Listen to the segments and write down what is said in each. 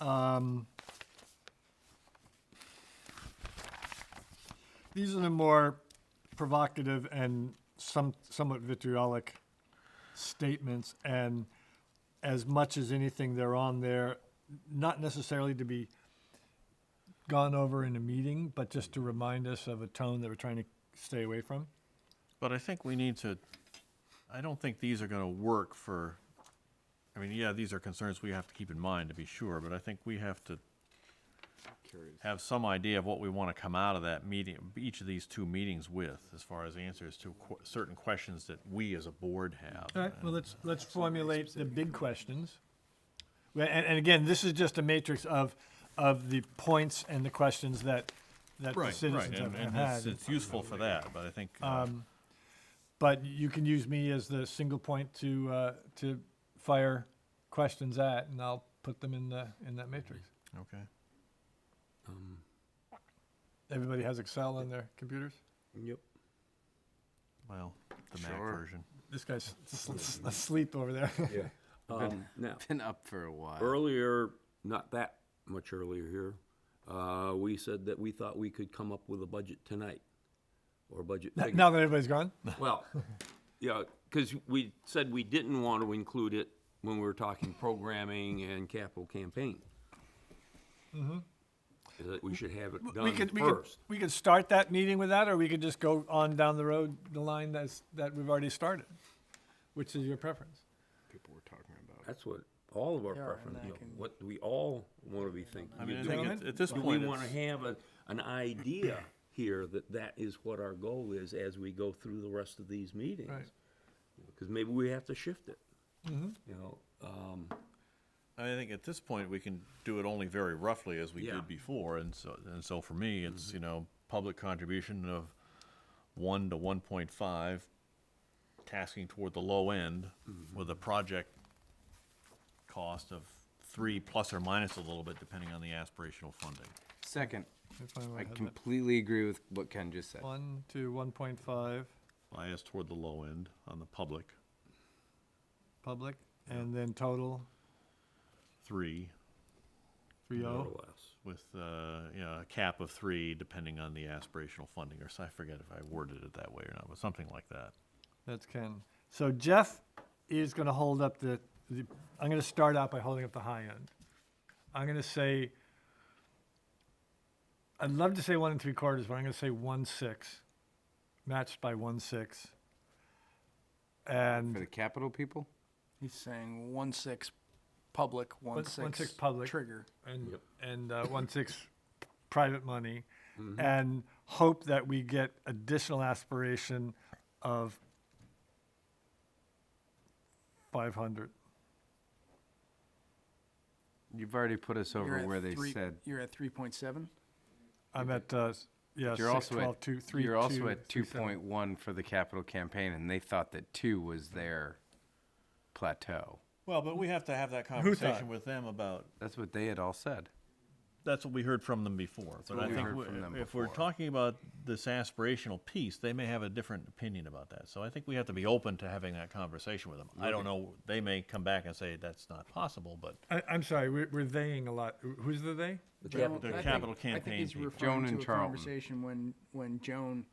Um, these are the more provocative and some somewhat vitriolic statements, and as much as anything, they're on there, not necessarily to be gone over in a meeting, but just to remind us of a tone that we're trying to stay away from. But I think we need to, I don't think these are gonna work for, I mean, yeah, these are concerns we have to keep in mind to be sure, but I think we have to have some idea of what we wanna come out of that meeting, each of these two meetings with, as far as answers to que- certain questions that we as a board have. All right, well, let's, let's formulate the big questions. Well, And, and again, this is just a matrix of, of the points and the questions that, that the Right, right, citizens have and, have and it's, had. Um, it's useful for that, but I think, uh, But you can use me as the single point to, uh, to fire questions at, and I'll put them in the, in that matrix. okay. Everybody has Excel on their computers? Yep. Well, the Mac Sure. version. This guy's s- s- asleep over there. Yeah. Um, now, Been up for a while. earlier, not that much earlier here, uh, we said that we thought we could come up with a budget tonight, or budget figure. Now that everybody's gone? Well, yeah, because we said we didn't want to include it when we were talking programming and capital campaign. Is That we should have it Mm-hmm. We done could, we could, first. we could start that meeting with that, or we could just go on down the road, the line that's, that we've already started, which is your preference. People were talking about. That's what all of our preferences, what we all want to be thinking. I mean, I Do think gentlemen? at, at this Do we point, want to it's, have a, an idea here that that is what our goal is as we go through the rest of these meetings? Because maybe we have to shift it. Mm-hmm. You know, um, I think at this point, we can do it only very roughly as we Yeah. did before, and so, and so for me, it's, you know, public contribution of one to one point five, tasking toward the low end with a project cost of three plus or minus a little bit, depending on the aspirational funding. Second, That's fine, I I have that. completely agree with what Ken just said. One to one point five, Bias toward the low end on the public, public, and then total, three, three more oh. or less. with, uh, you know, a cap of three, depending on the aspirational funding, or so I forget if I worded it that way or not, but something like that. That's Ken. So Jeff is gonna hold up the, the, I'm gonna start out by holding up the high end. I'm gonna say, I'd love to say one and three quarters, but I'm gonna say one six, matched by one six. And For the capital people? He's saying one six public, one One- six, one six public. trigger. and and uh, one six private money, and hope that we get additional aspiration of five hundred. You've already put us You're over at where they three- said. You're at three point seven? I'm at uh, s- yeah You're six, also twelve, at, two, three, you're also two, at three, two seven. point one for the capital campaign, and they thought that two was their plateau. Well, but we have to have that Who thought? conversation with them about, That's what they had all said. that's what we heard from them before. But what I we think heard we- from them if we're before. talking about this aspirational piece, they may have a different opinion about that. So I think we have to be open to having that conversation with them. I don't know, they may come back and say that's not possible, but I, I'm sorry, we're, we're theying a lot. Wh- Who's the they? Joan- the I think- capital I think campaign he's people. Joan referring and to Charlton. a Mm-hmm. conversation when, when Joan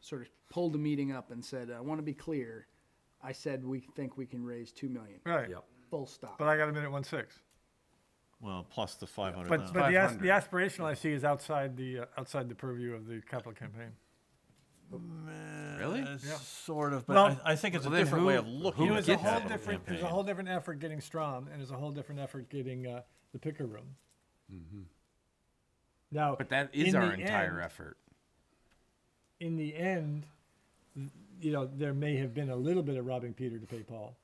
sort of pulled the meeting up and said, I want to be clear. I said, we think we can raise two million, Right. Yep. full stop. But I got a minute one six. Well, plus the five hundred But but thousand. the, as, the aspirational I see is outside the uh, outside the purview of the capital campaign. Really? Uh, Sort of, Well- but I, I think it's a Well, then different way who- of looking who at It the was a gets whole that? capital different. There's a campaign. whole different effort getting Strom, and there's a whole different effort getting uh, the picker room. Mm-hmm. Now, But that is in our the entire end- effort. In the end, th- you know, there may have been a little bit of robbing Peter to pay Paul,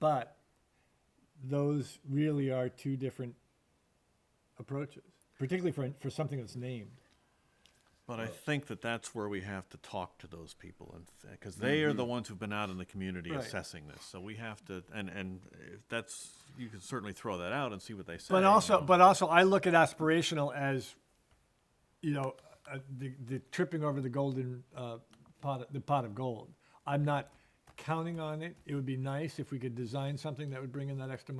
but those really are two different approaches, particularly for for something that's named. But I think that that's where we have to talk to those people, and because they are the ones who've been out in the community Mm-hmm. Right. assessing this, so we have to. And and if that's you can certainly throw that out and see what they say. But also, but also, I look at aspirational as, you know, uh, the the tripping over the golden uh, pot, the pot of gold. I'm not counting on it. It would be nice if we could design something that would bring in that extra